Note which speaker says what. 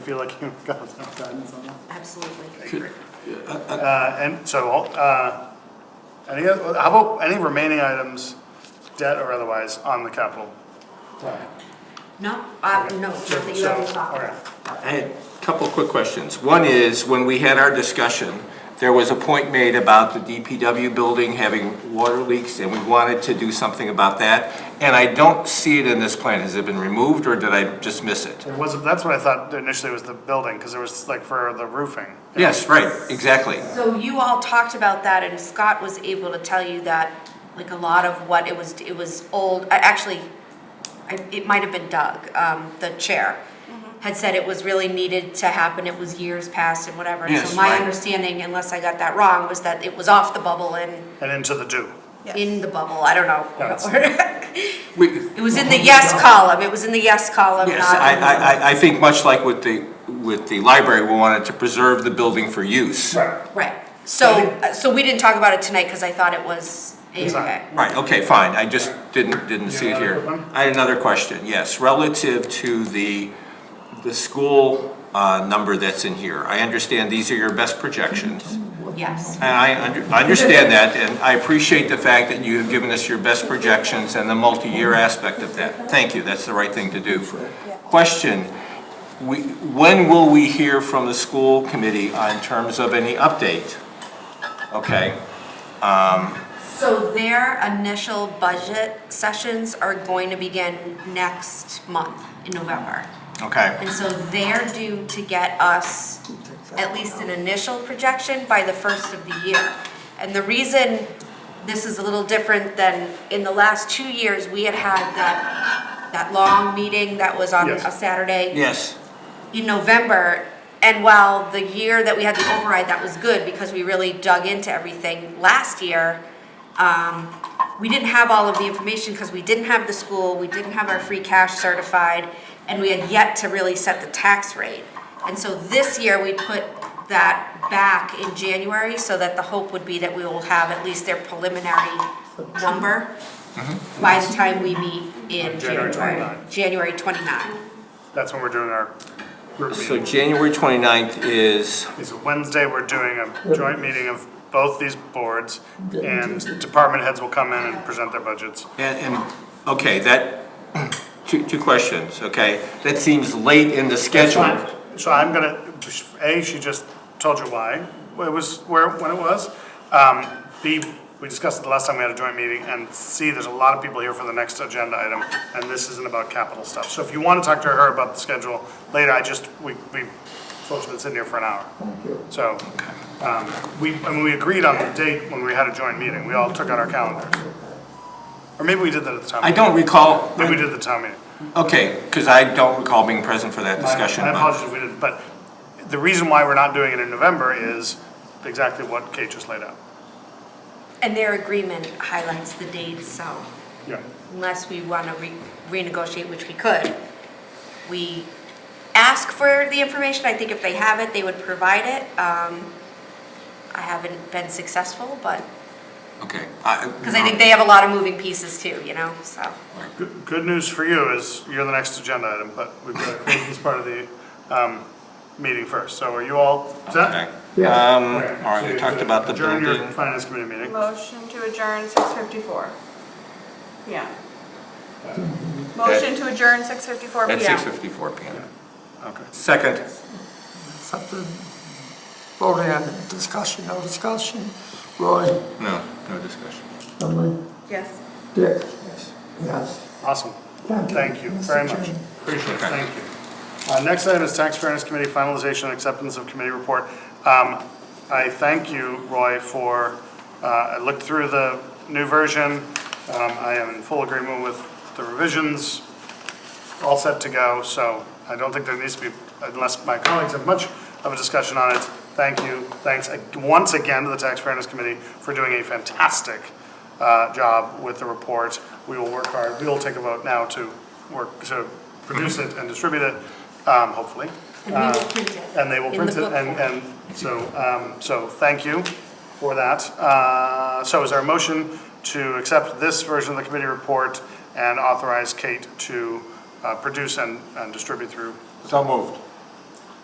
Speaker 1: Feel like you've got some guidance on that?
Speaker 2: Absolutely.
Speaker 1: Uh, and so, uh, any, oth- how about any remaining items, debt or otherwise, on the capital?
Speaker 2: No, uh, no, not that you ever talked
Speaker 1: Okay.
Speaker 2: about.
Speaker 3: I had a couple of quick questions. One is, when we had our discussion, there was a point made about the DPW building having water leaks, and we wanted to do something about that. And I don't see it in this plan. Has it been removed, or did I just miss it?
Speaker 1: It was, that's what I thought initially was the building, because it was like for the roofing.
Speaker 3: Yes, right, exactly.
Speaker 2: So you all talked about that and Scott was able to tell you that, like, a lot of what it was, it was old, I actually, I, it might have been Doug, um, the chair, had said it was really needed to happen, it was years past and whatever. And
Speaker 3: Yes,
Speaker 2: So my
Speaker 3: right.
Speaker 2: understanding, unless I got that wrong, was that it was off the bubble and
Speaker 1: And into the do.
Speaker 2: in the bubble, I don't know.
Speaker 3: We,
Speaker 2: It was in the yes column, it was in the yes column,
Speaker 3: Yes,
Speaker 2: not.
Speaker 3: I,
Speaker 2: in the-
Speaker 3: I, I- I think much like with the, with the library, we wanted to preserve the building for use.
Speaker 1: Right.
Speaker 2: Right, so, uh, so we didn't talk about it tonight because I thought it was,
Speaker 1: It's not.
Speaker 2: okay.
Speaker 3: Right, okay, fine, I just didn't, didn't see it
Speaker 1: You have
Speaker 3: here.
Speaker 1: another one?
Speaker 3: I had another question, yes, relative to the, the school uh, number that's in here. I understand these are your best projections,
Speaker 2: Yes,
Speaker 3: and I under- I understand that, and I appreciate the fact that you have given us your best projections and the multi-year aspect of that. Thank you, that's the right thing to do. Question, we- when will we hear from the school committee on terms of any update? Okay,
Speaker 2: so their initial budget sessions are going to begin next month in November.
Speaker 3: okay.
Speaker 2: And so they're due to get us at least an initial projection by the first of the year. And the reason this is a little different than in the last two years, we had had that, that long meeting that was on
Speaker 1: Yes.
Speaker 2: a Saturday.
Speaker 3: Yes,
Speaker 2: in November, and while the year that we had the override, that was good because we really dug into everything last year, um, we didn't have all of the information because we didn't have the school, we didn't have our free cash certified, and we had yet to really set the tax rate. And so this year, we put that back in January so that the hope would be that we will have at least their preliminary number by the time we meet in
Speaker 1: January
Speaker 2: January,
Speaker 1: 29.
Speaker 2: January 29.
Speaker 1: That's when we're doing our group
Speaker 3: so
Speaker 1: meeting.
Speaker 3: January 29th is,
Speaker 1: It's Wednesday, we're doing a joint meeting of both these boards, and department heads will come in and present their budgets.
Speaker 3: and, and, okay, that, two, two questions, okay? That seems late in the schedule.
Speaker 1: So I'm gonna, A, she just told you why, it was, where, when it was. Um, B, we discussed it the last time we had a joint meeting, and C, there's a lot of people here for the next agenda item, and this isn't about capital stuff. So if you wanna talk to her about the schedule later, I just, we, we posted this in here for an hour. So, um, we, I mean, we agreed on the date when we had a joint meeting, we all took out our calendars. Or maybe we did that at the time.
Speaker 3: I don't recall,
Speaker 1: Maybe we did the town meeting.
Speaker 3: okay, because I don't recall being present for that discussion,
Speaker 1: I
Speaker 3: but,
Speaker 1: apologize if we didn't, but the reason why we're not doing it in November is exactly what Kate just laid out.
Speaker 2: And their agreement highlights the dates, so
Speaker 1: Yeah.
Speaker 2: unless we want to renegotiate, which we could, we ask for the information. I think if they have it, they would provide it. Um, I haven't been successful, but,
Speaker 3: okay.
Speaker 2: because I think they have a lot of moving pieces too, you know, so.
Speaker 1: Uh, Good, good news for you is you're the next agenda item, but we've got to close this part of the, um, meeting first. So are you all set?
Speaker 3: Um, all right, we talked about the
Speaker 1: Adjourn your
Speaker 3: building.
Speaker 1: finance committee meeting.
Speaker 4: Motion to adjourn six fifty-four. Yeah. Motion to adjourn six fifty-four
Speaker 3: At
Speaker 4: PM.
Speaker 3: 6:54 PM.
Speaker 1: Okay.
Speaker 3: Second.
Speaker 5: Something, voting on it, discussion, no discussion. Roy,
Speaker 3: No, no discussion.
Speaker 5: Emily,
Speaker 4: Yes.
Speaker 5: Dick? Yes.
Speaker 1: Awesome.
Speaker 5: Thank you,
Speaker 1: Thank you
Speaker 5: Mr.
Speaker 1: very much.
Speaker 5: Chairman.
Speaker 1: Appreciate it,
Speaker 3: Okay.
Speaker 1: thank you. Uh, Next item is Tax Fairness Committee Finalization and Acceptance of Committee Report. Um, I thank you, Roy, for, uh, I looked through the new version. Um, I am in full agreement with the revisions, all set to go, so I don't think there needs to be, unless my colleagues have much of a discussion on it. Thank you, thanks uh, once again to the Tax Fairness Committee for doing a fantastic uh, job with the report. We will work hard, we will take a vote now to work, to produce it and distribute it, um, hopefully.
Speaker 2: And we will print it.
Speaker 1: And they will
Speaker 2: in the
Speaker 1: print it,
Speaker 2: book
Speaker 1: and,
Speaker 2: form.
Speaker 1: and so, um, so thank you for that. Uh, So is there a motion to accept this version of the committee report and authorize Kate to uh, produce and, and distribute through?
Speaker 3: So moved.